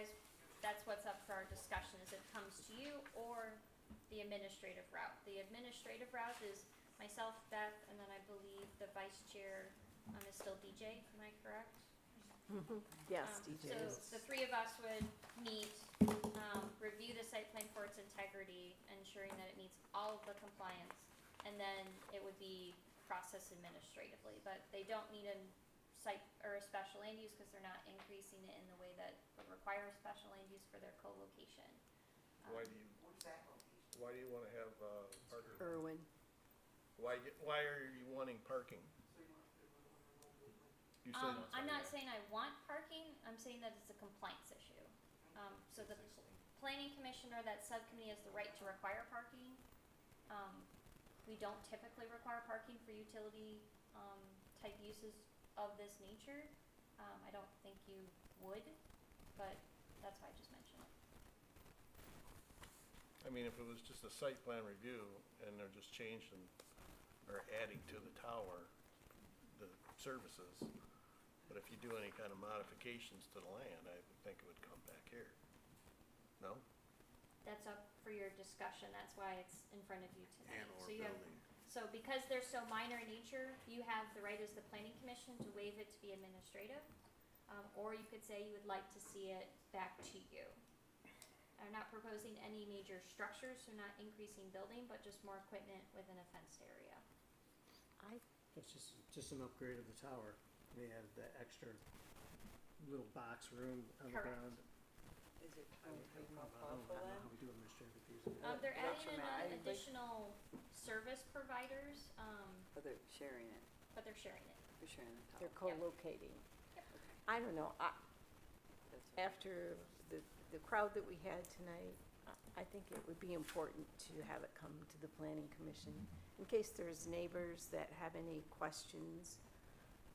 is, that's what's up for our discussion, is it comes to you or the administrative route. The administrative route is myself, Beth, and then I believe the vice chair, um, is still DJ, am I correct? Yes, Um, DJ is. So the three of us would meet, um, review the site plan for its integrity, ensuring that it meets all of the compliance. And then it would be processed administratively, but they don't need a site or a special land use because they're not increasing it in the way that would require a special land use for their co-location. Um, Why do you, Where's that located? why do you wanna have, uh, parking? Irwin. Why, y- why are you wanting parking? So you want to put one on the one? You said- Um, I'm not saying I want parking, I'm saying that it's a compliance issue. Um, so the planning commission or that subcommittee has the right to require parking. Um, we don't typically require parking for utility, um, type uses of this nature. Um, I don't think you would, but that's why I just mentioned it. I mean, if it was just a site plan review and they're just changing or adding to the tower, the services. But if you do any kind of modifications to the land, I would think it would come back here. No? That's up for your discussion, that's why it's in front of you tonight. And or So you have building. So because they're so minor in nature, you have the right as the planning commission to waive it to be administrative. Um, or you could say you would like to see it back to you. I'm not proposing any major structures, so not increasing building, but just more equipment within a fenced area. It's just, just an upgrade of the tower. They have the extra little box room on the Correct. ground. Is it I kind of don't I don't know more about- I don't powerful know then? how we do administrative fees. Um, they're That's adding in your uh, mind. additional service providers, um, Or they're sharing it, but they're sharing it. they're sharing the tower? They're co-locating. Yep. I don't know, I, That's what- after the, the crowd that we had tonight, I- I think it would be important to have it come to the planning commission in case there's neighbors that have any questions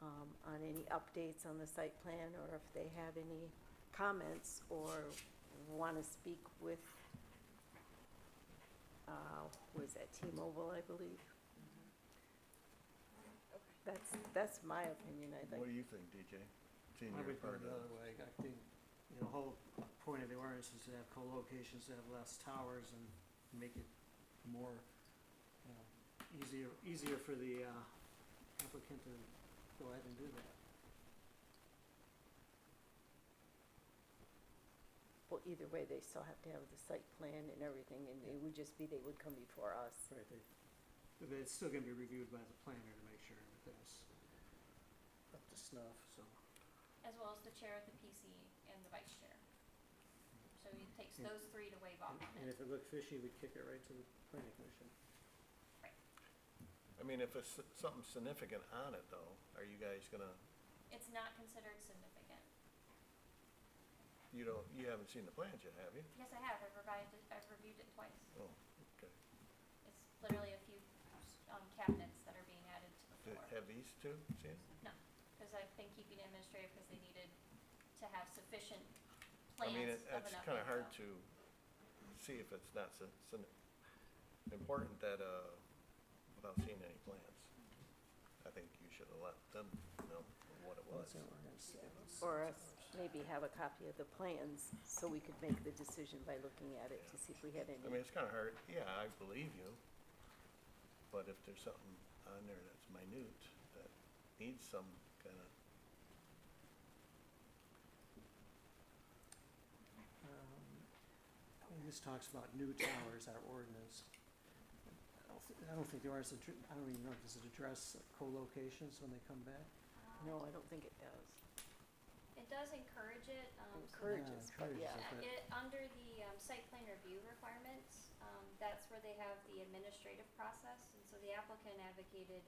um, on any updates on the site plan or if they have any comments or want to speak with, uh, was that T-Mobile, I believe? Okay. That's, that's my opinion, I'd like What do you think, DJ? Seeing I you're would go part of the other way. I think, uh, you know, the whole point of the ordinance is to have co-locations, to have less towers and make it more, you know, easier, easier for the uh, applicant to go ahead and do that. Well, either way, they still have to have the site plan and everything, and it would just be, they would come before us. Right, they, but it's still gonna be reviewed by the planner to make sure everything's up to snuff, so. As well as the chair of the PC and the vice chair. So it takes Yeah. those three to waive off And- on Hmm. And it. if it looked fishy, we'd kick it right to the planning commission. I mean, if it's something significant on it though, are you guys gonna, It's not considered significant. you don't, you haven't seen the plans yet, have you? Yes, I have, I've revised it, I've reviewed it twice. Oh, okay. It's literally a few, um, cabinets that are being added to the Do- floor. Have these two seen? Cause I've been keeping it administrative because they needed to have sufficient I mean, plans it- of it's an kinda hard upland zone. to see if it's not, s- s- important that, uh, without seeing any plans. I think you should have let them know what it was. Or us, maybe have a copy of the plans, so we could make the decision by looking at it to see if we had I mean, any. it's kinda hard, yeah, I believe you, but if there's something on there that's minute, that needs some kinda, Um, and This talks about new towers, our ordinance. I don't thi- I don't think the ordinance, addr- I don't even know, does it address co-locations when they come back? No, I don't think it does. It does encourage it, um, so Encourage Yeah, us, but encourages yeah. it, Uh, but- It, under the, um, site plan review requirements, um, that's where they have the administrative process, and so the applicant advocated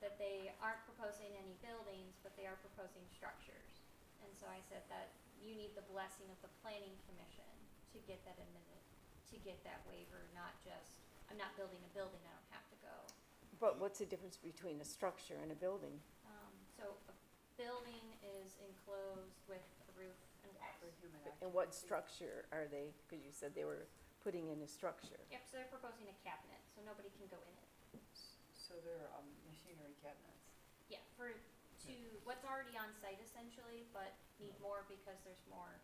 that they aren't proposing any buildings, but they are proposing structures. And so I said that you need the blessing of the planning commission to get that admitted, to get that waiver, not just, I'm not building a building, I don't have to go. But what's the difference between a structure and a building? Um, so a building is enclosed with a roof and For walls. human And what occupancy. structure are they, because you said they were putting in a structure. Yep, so they're proposing a cabinet, so nobody can go in it. S- So they're, um, machinery cabinets. Yeah, for, to what's already on site essentially, but need more because there's more